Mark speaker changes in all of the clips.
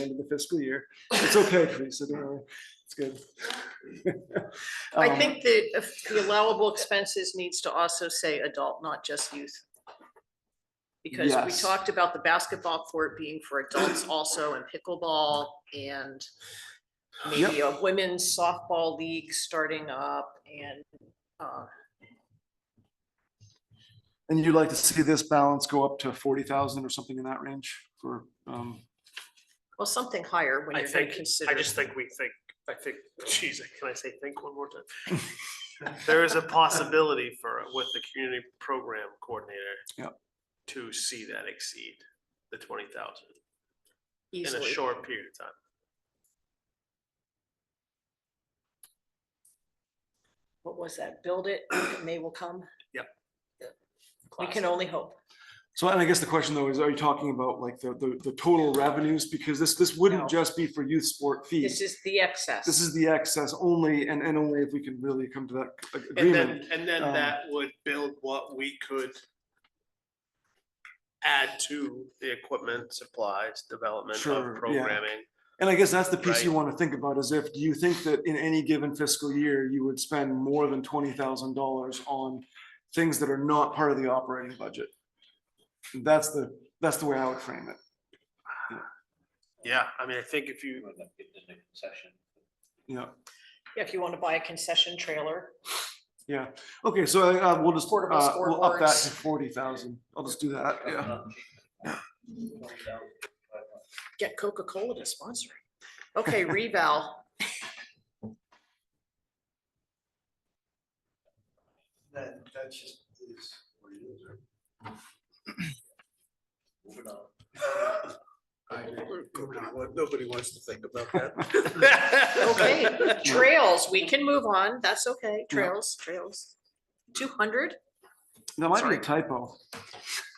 Speaker 1: end of the fiscal year. It's okay, Teresa, don't worry. It's good.
Speaker 2: I
Speaker 1: Um,
Speaker 2: think that if the allowable expenses needs to also say adult, not just youth. Because we
Speaker 1: Yes.
Speaker 2: talked about the basketball court being for adults also and pickleball and maybe a women's softball league starting up and, uh,
Speaker 1: And you'd like to see this balance go up to forty thousand or something in that range for, um,
Speaker 2: well, something higher when
Speaker 3: I
Speaker 2: you're going
Speaker 3: think,
Speaker 2: to
Speaker 3: I
Speaker 2: consider.
Speaker 3: just think we think, I think, Jesus, can I say think one more time? There is a possibility for, with the community program coordinator.
Speaker 1: Yep.
Speaker 3: To see that exceed the twenty thousand in a
Speaker 2: easily.
Speaker 3: short period of time.
Speaker 2: What was that? Build it, and they will come.
Speaker 3: Yep.
Speaker 2: We can only hope.
Speaker 1: so and I guess the question though is, are you talking about like the, the, the total revenues? Because this, this
Speaker 2: No.
Speaker 1: wouldn't just be for youth sport
Speaker 2: This
Speaker 1: fees.
Speaker 2: is the excess.
Speaker 1: This is the excess only and, and only if we can really come to that ag-
Speaker 3: And
Speaker 1: agreement.
Speaker 3: then, and then
Speaker 1: um,
Speaker 3: that would build what we could. Add to the equipment, supplies, development
Speaker 1: Sure,
Speaker 3: of
Speaker 1: yeah.
Speaker 3: programming.
Speaker 1: And I guess that's the piece you
Speaker 3: Right.
Speaker 1: want to think about is if, do you think that in any given fiscal year, you would spend more than twenty thousand dollars on things that are not part of the operating budget? That's the, that's the way I would frame it.
Speaker 3: Yeah, I mean, I think if you,
Speaker 4: would like to get the concession.
Speaker 1: Yeah,
Speaker 2: Yeah, If you want to buy a concession trailer,
Speaker 1: yeah. Okay, so uh, we'll just,
Speaker 2: Portable
Speaker 1: uh, we'll up that
Speaker 2: scoreboards.
Speaker 1: to forty thousand. I'll just do that, yeah.
Speaker 2: get Coca-Cola to sponsor it. Okay, reval.
Speaker 4: That, that's just, is what it is. right? Moving on.
Speaker 5: Nobody wants to think about that.
Speaker 2: Okay, trails, we can move on. That's okay. Trails, trails. Two hundred?
Speaker 1: That might be a typo.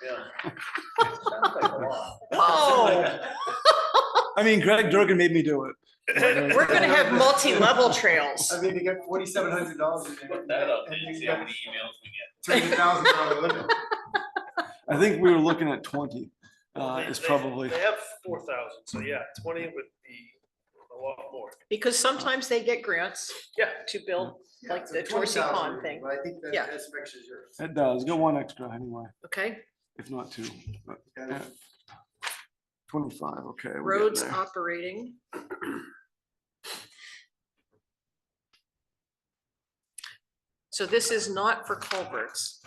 Speaker 4: Yeah. Sounds like a lot.
Speaker 3: Oh.
Speaker 2: Whoa,
Speaker 1: I mean, Greg Durgan made me do it.
Speaker 2: we're gonna have multi-level trails.
Speaker 5: I mean, to get forty-seven hundred dollars.
Speaker 4: Put that up there, you see how many emails we get.
Speaker 5: Three thousand dollar limit.
Speaker 1: I think we were looking at twenty,
Speaker 3: Well,
Speaker 1: uh,
Speaker 3: they-
Speaker 1: is
Speaker 3: they-
Speaker 1: probably,
Speaker 3: They have four thousand, so yeah, twenty would be a lot more.
Speaker 2: Because sometimes they get grants
Speaker 3: Yeah.
Speaker 2: to build, Like the Torsi
Speaker 5: $20,000,
Speaker 2: Pond thing.
Speaker 5: But I think that,
Speaker 2: Yeah.
Speaker 5: that's extra yours.
Speaker 1: it does, go one extra anyway,
Speaker 2: okay?
Speaker 1: if not two. but-
Speaker 5: Got it.
Speaker 1: Twenty-five, okay. we're getting
Speaker 2: Roads
Speaker 1: there.
Speaker 2: operating. So this is not for culverts.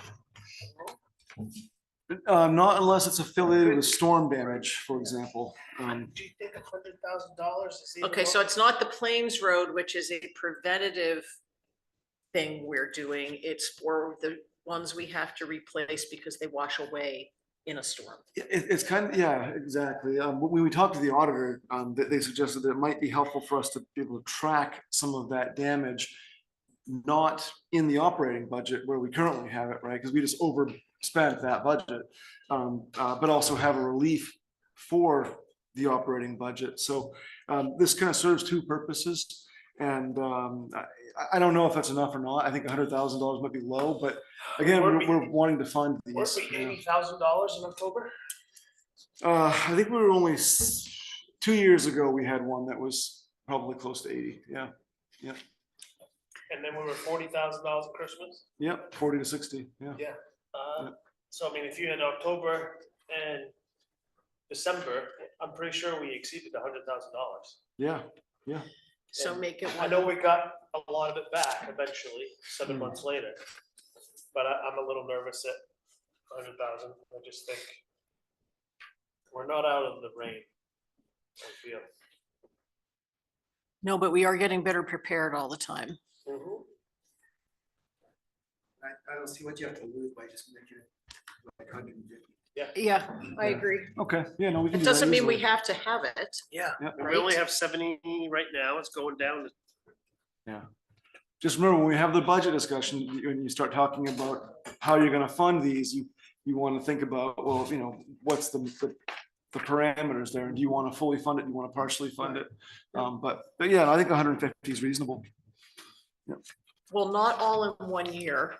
Speaker 1: Uh, not unless it's affiliated with storm damage, for example. Um,
Speaker 3: Do you think a hundred thousand dollars is?
Speaker 2: Okay, so it's not the Plains Road, which is a preventative thing we're doing. It's for the ones we have to replace because they wash away in a storm.
Speaker 1: it, it's kind of, yeah, exactly. Um, when we talked to the auditor, um, they, they suggested that it might be helpful for us to be able to track some of that damage. Not in the operating budget where we currently have it, right? Because we just overspent that budget. Um, uh, but also have a relief for the operating budget. So, um, this kind of serves two purposes. And, um, I, I don't know if that's enough or not. I think hundred thousand dollars might be low, but again,
Speaker 3: Weren't
Speaker 1: we're,
Speaker 3: we-
Speaker 1: we're wanting to fund these. you know.
Speaker 3: thousand dollars in October?
Speaker 1: Uh, I think we were only, s- two years ago, we had one that was probably close to eighty, yeah,
Speaker 3: And then we were forty thousand dollars at Christmas?
Speaker 1: yep, forty to sixty, yeah.
Speaker 3: Uh, So I mean, if you had October and December, I'm pretty sure we exceeded a hundred thousand dollars.
Speaker 1: Yeah,
Speaker 2: So make it
Speaker 3: I
Speaker 2: one,
Speaker 3: know we got a lot of it back eventually, seven
Speaker 1: Hmm.
Speaker 3: months later. But I, I'm a little nervous at a hundred thousand, I just think we're not out of the rain. I feel.
Speaker 2: no, but we are getting better prepared all the time.
Speaker 5: I, I don't see what you have to lose by just making it like hundred and fifty.
Speaker 2: Yeah, I
Speaker 1: I
Speaker 2: agree.
Speaker 1: okay, yeah, no, we can
Speaker 2: It
Speaker 1: do that
Speaker 2: doesn't mean we
Speaker 1: easily.
Speaker 2: have to have it.
Speaker 3: Yeah.
Speaker 1: Yeah.
Speaker 3: And We only
Speaker 2: Right?
Speaker 3: have seventy right now, it's going down to
Speaker 1: Just remember, when we have the budget discussion, you- when you start talking about how you're gonna fund these, you, you wanna think about, well, you know, what's the, the the parameters there, do you wanna fully fund it, do you wanna partially fund it? Um, but, but yeah, I think hundred and fifty is reasonable.
Speaker 2: Well, not all in one year.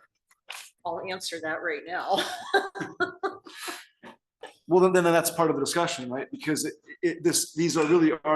Speaker 2: I'll answer that right now.
Speaker 1: Well, then, then that's part of the discussion, right? Because it, it, this, these are really are